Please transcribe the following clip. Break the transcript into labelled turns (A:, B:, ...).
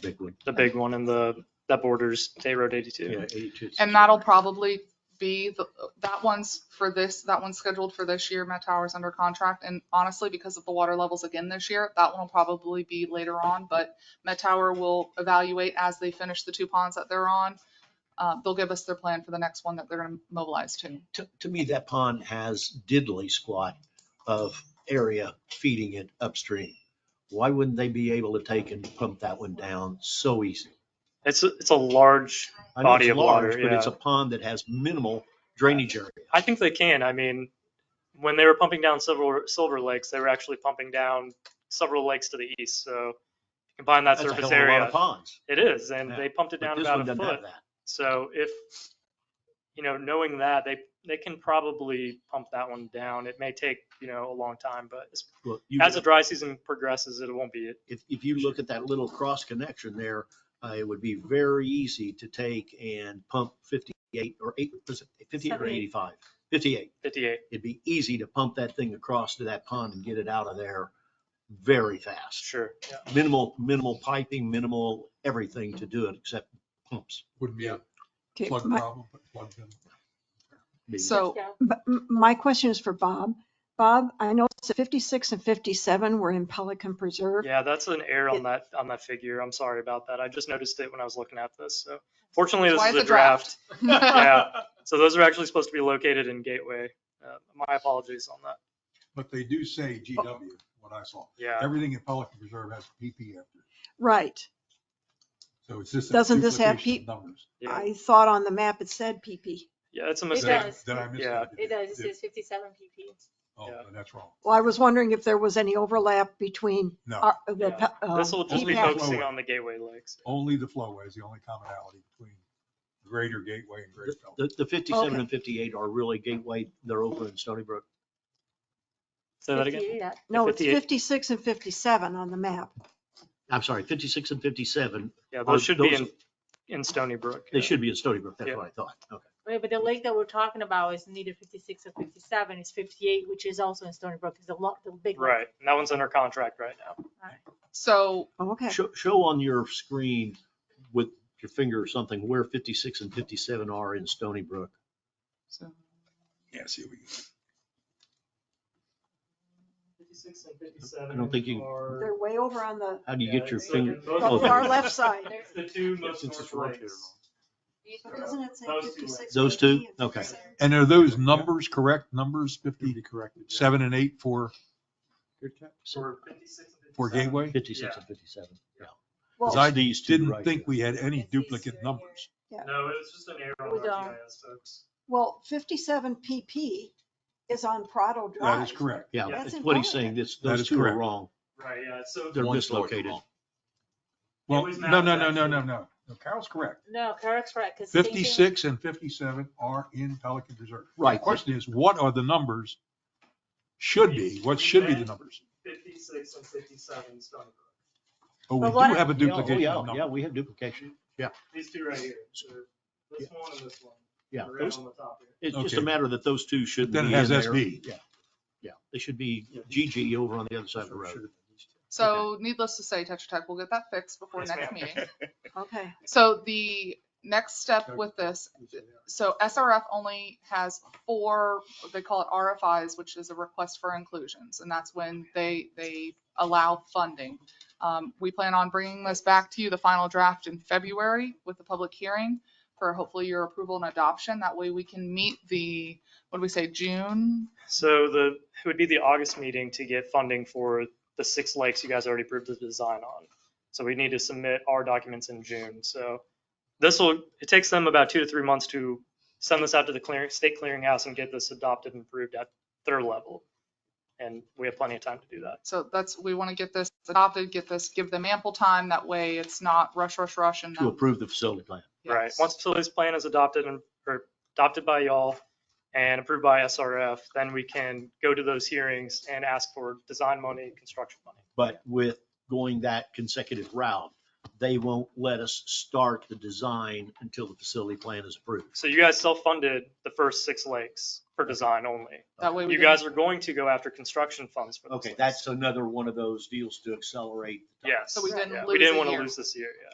A: big one.
B: the big one in the, that borders State Road 82.
A: Yeah, 82.
C: And that'll probably be, the that one's for this, that one's scheduled for this year, Met Tower's under contract. And honestly, because of the water levels again this year, that one will probably be later on, but Met Tower will evaluate as they finish the two ponds that they're on. Uh, They'll give us their plan for the next one that they're gonna mobilize to.
A: To, to me, that pond has diddly squat of area feeding it upstream. Why wouldn't they be able to take and pump that one down so easy?
B: It's, a- it's a large,
A: I know it's
B: Body of
A: large,
B: water,
A: But it's a
B: yeah.
A: pond that has minimal drainage area.
B: I think they can. I mean, when they were pumping down Silver, Silver Lakes, they were actually pumping down several lakes to the east. So combine that
A: That's a hell of
B: surface
A: a lot of
B: area.
A: ponds.
B: It is, and
A: Yeah.
B: they pumped it
A: But
B: down
A: this one
B: about a
A: doesn't
B: foot.
A: have that.
B: So if, you know, knowing that, they, they can probably pump that one down. It may take, you know, a long time, but as-
A: Look, you-
B: as the dry season progresses, it won't be.
A: if, if you look at that little cross connection there, uh, it would be very easy to take and pump fifty-eight or eight, was it fifty-eight or
D: Seventy.
A: eighty-five? Fifty-eight.
B: 58.
A: It'd be easy to pump that thing across to that pond and get it out of there very fast.
B: Sure. Yeah.
A: Minimal, minimal piping, minimal everything to do it except pumps.
E: Wouldn't be a
F: Okay,
E: plug
F: my,
E: problem, but plugged in.
A: being-
B: Oh.
C: So
F: but m- my question is for Bob. Bob, I know it's 56 and 57 were in Pelican Preserve.
B: Yeah, that's an error
F: It-
B: on that, on that figure. I'm sorry about that. I just noticed it when I was looking at this. So fortunately, this
C: Why
B: is
C: it's
B: a draft. Yeah. So those are actually supposed to be located in Gateway. Uh, My apologies on that.
E: But they do say GW, what I saw.
B: Yeah.
E: Everything in Pelican Reserve has PP after it.
F: Right.
E: So it's just. a
F: Doesn't this have
E: duplication of Numbers.
B: Yeah,
F: I thought on the map it said PP.
B: Yeah, it's a
E: Did
B: mistake.
E: I-
D: does.
E: Did I miss
B: Yeah.
E: that?
D: It does, it
E: Did-
D: says fifty-seven PP.
E: Oh,
B: Yeah.
E: that's wrong.
F: Well, I was wondering if there was any overlap between
E: No,
F: our- the.
B: Yeah.
F: pe- uh,
B: This will just be
F: PPAC.
E: PPAC.
B: focusing on the Gateway Lakes.
A: Oh.
E: only the flowway is the only commonality between Greater Gateway and Great Pelican.
A: The, the fifty-seven
F: Okay.
A: and fifty-eight are really gateway, they're over in Stony Brook.
B: Say that again.
D: 58 at-
F: No, it's
B: 58.
F: 56 and 57 on the map.
A: I'm sorry, fifty-six and fifty-seven,
B: Yeah,
A: Or
B: those should be
A: Oh, those-
B: in, in Stony Brook.
A: they
B: yeah.
A: should be in Stony Brook. That's
B: Yeah.
A: what I thought. Okay.
D: Right, but the lake that we're talking about is neither fifty-six or fifty-seven, it's fifty-eight, which is also in Stony Brook, is the lot, the big. one.
B: Right. And that one's under contract right now.
C: So
F: Okay.
A: Show, show on your screen with your finger or something where 56 and 57 are in Stony Brook.
C: so
E: Yeah, see, we,
A: I don't think you-
F: They're way over on the,
A: How do you get your finger?
F: the
A: Oh, there
F: far
A: you
F: left side.
D: There's-
B: The two
A: most Since it's north rotated lakes.
F: Doesn't it say
B: Those two
F: 56?
A: Those two?
F: 58, and
A: Okay.
F: 57?
E: and are those numbers correct? Numbers
G: You'd
E: fifty,
G: be corrected. yeah.
E: seven and eight for, for Gateway?
A: 56 and 57. Yeah.
E: Because
F: Well,
E: I
A: It's these two
E: didn't
A: right
E: think
A: here.
E: we had any
D: It's these two
E: duplicate
D: right
E: numbers.
B: No, it was just an error
D: We
B: on
D: don't.
B: our GIS, folks.
F: well, 57 PP is on Prado Drive.
E: That is correct.
A: Yeah,
B: Yeah.
A: that's
F: That's
A: what he's
F: important.
A: saying. This,
E: That
A: those
E: is
A: two are
E: correct.
A: wrong.
B: Right, yeah, so.
A: They're
G: One's north,
A: dislocated.
G: one's
E: Well,
B: was
E: no,
B: not
E: no, no, no,
B: actually-
E: no, no. No, Carol's correct.
D: No, correct, correct, because.
E: 56 and 57 are in Pelican Reserve.
A: Right.
E: The question is, what are the numbers should be, what should be the numbers?
B: Fifty-six and fifty-seven Stony Brook.
E: Oh, we
D: But
E: do
D: what-
E: have
A: Yeah,
E: a
A: oh,
E: duplication
A: yeah,
E: of
A: yeah,
E: numbers.
A: we have duplication.
B: These two right here, so this one and this one.
A: Yeah.
B: Right
A: those-
B: on the top here.
A: It's just a
E: Okay.
A: matter that those two shouldn't be
E: Then
A: in
E: it has
A: there.
E: SB.
A: Yeah. Yeah. They should be GG over on the other side of the road.
C: So needless to say, Tetra Tech will get that fixed before
B: Yes,
C: next
B: ma'am.
C: meeting.
F: Okay.
C: So the next step with this, so SRF only has four, they call it RFIs, which is a request for inclusions. And that's when they, they allow funding. Um, We plan on bringing this back to you, the final draft in February with the public hearing for hopefully your approval and adoption. That way we can meet the, what do we say, June?
B: So the, it would be the August meeting to get funding for the six lakes you guys already approved the design on. So we need to submit our documents in June. So this will, it takes them about two to three months to send this out to the clearing, state clearinghouse and get this adopted and approved at their level. And we have plenty of time to do that.
C: So that's, we want to get this adopted, get this, give them ample time. That way it's not rush, rush, rush and.
A: To
C: then-
A: approve the facility plan.
B: Right,
C: Yes.
B: once facilities plan is adopted and, or adopted by y'all and approved by SRF, then we can go to those hearings and ask for design money, construction money.
A: But with going that consecutive route, they won't let us start the design until the facility plan is approved.
B: So you guys self-funded the first six lakes for design only.
C: That way we
B: You
C: can-
B: guys are going to go after construction funds for those
A: Okay,
B: lakes.
A: that's another one of those deals to accelerate. the timeline.
B: Yes.
C: So we didn't
B: Yeah,
C: lose
B: We
C: a
B: didn't want to
C: year.
B: lose this year, yeah.